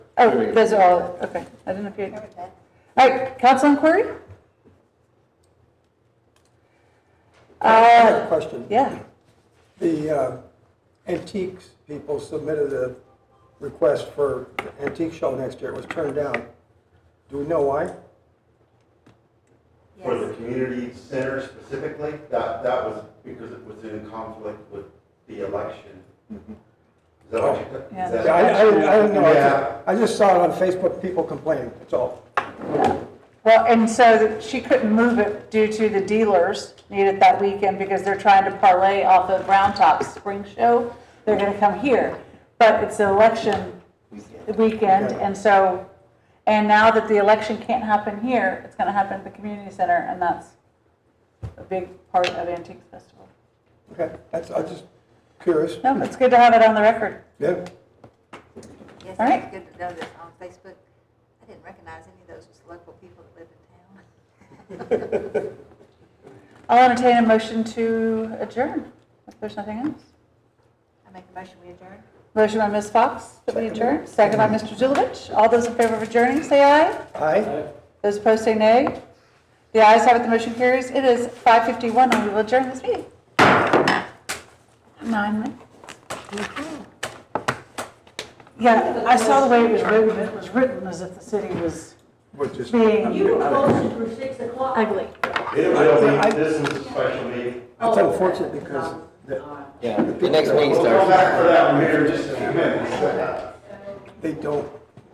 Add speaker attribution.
Speaker 1: Oh, those are all, okay, I didn't appear. All right, council inquiry?
Speaker 2: I have a
Speaker 1: Uh,
Speaker 2: question.
Speaker 1: yeah,
Speaker 2: The uh, antiques people submitted a request for antique show next year. It was turned down. Do we know why?
Speaker 3: For the community center specifically, that, that was because it was in conflict with the election. Is that what you, is
Speaker 1: Yeah.
Speaker 2: Yeah, I,
Speaker 3: that?
Speaker 2: I didn't I didn't know. I
Speaker 3: Yeah.
Speaker 2: just- I just saw it on Facebook, people complaining, that's all.
Speaker 1: well, and so that she couldn't move it due to the dealers need it that weekend because they're trying to parlay off of Round Top Spring Show. They're gonna come here, but it's an election weekend, and so, and now that the election can't happen here, it's gonna happen at the community center, and that's a big part of Antiques Festival.
Speaker 2: Okay, that's, I'm just curious.
Speaker 1: No, it's good to have it on the record.
Speaker 2: Yeah,
Speaker 4: Yes,
Speaker 1: All right.
Speaker 4: it's good to know this on Facebook. I didn't recognize any of those as local people that live in town.
Speaker 1: I'll entertain a motion to adjourn, if there's nothing else.
Speaker 4: I make a motion, we adjourn.
Speaker 1: Motion by Ms. Fox that we adjourn, second by Mr. Zulovich. All those in favor of adjourning, say aye.
Speaker 2: aye?
Speaker 1: Those opposed, say nay. The ayes have it, the motion carries. It is 5:51, and we will adjourn this meeting. Nine minutes. Yeah, I saw the way it was written, it was written as if the city was
Speaker 2: Which is.
Speaker 1: being,
Speaker 5: You were closed for six o'clock.
Speaker 1: Ugly.
Speaker 3: It will be, this is a special meeting.
Speaker 2: It's unfortunate because the-
Speaker 6: Yeah, the next meeting
Speaker 3: We'll go
Speaker 6: starts.
Speaker 3: back for that one here in just a few minutes.
Speaker 2: they don't